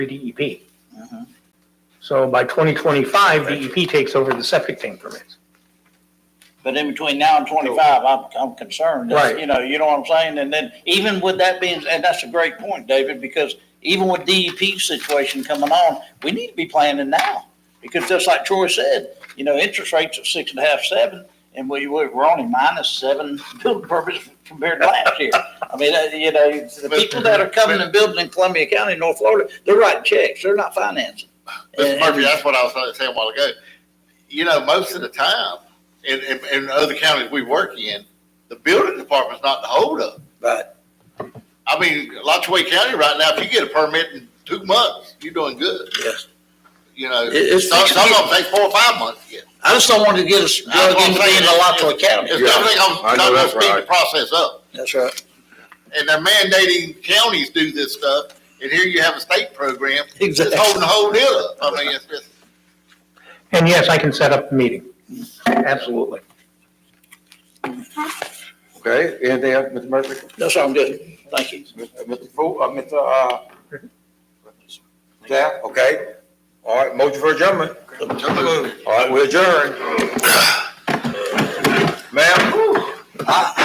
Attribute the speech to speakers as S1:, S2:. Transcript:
S1: DEP.
S2: Mhm.
S1: E Mm-hmm. So by 2025, DEP E takes over the septic tank permits.
S2: But in between now and twenty-five, I'm, I'm concerned,
S1: Right.
S2: you know, you know what I'm saying? And then even with that being, and that's a great point, David, because even with DEP's situation coming on, we need to be planning now. Because just like Troy said, you know, interest rates at six and a half, seven, and we, we're only minus seven building permits compared to last year. I mean, uh, you know, the people that are coming and building in Columbia County, North Florida, they're writing checks, they're not financing.
S3: Mr.
S2: And-
S3: Murphy, that's what I was saying a while ago. You know, most of the time, in, in, in other counties we work in, the building department's not the holdup.
S2: Right.
S3: I mean, Lachue County right now, if you get a permit in two months, you're doing good.
S2: Yes.
S3: You know,
S2: It- it's-
S3: some, some of them take four or five months to get.
S2: I just don't want to get us
S3: That's
S2: drug
S3: what I'm
S2: into
S3: saying.
S2: being a Alachua County.
S3: It's
S4: Yeah,
S3: definitely
S4: I
S3: gonna,
S4: know
S3: gonna
S4: that's
S3: speed the
S4: right.
S3: process up.
S2: That's right.
S3: And they're mandating counties do this stuff, and here you have a state program that's
S2: Exactly.
S3: holding the whole deal up. I mean, it's just.
S1: And yes, I can set up the meeting. Absolutely.
S4: Okay, anything else, Mr. Murphy?
S2: That's all I'm good. Thank you.
S4: Mr. Fu, uh, Mr. Uh, Staff, okay? All right, motion for adjournment. All right, we adjourn. Ma'am?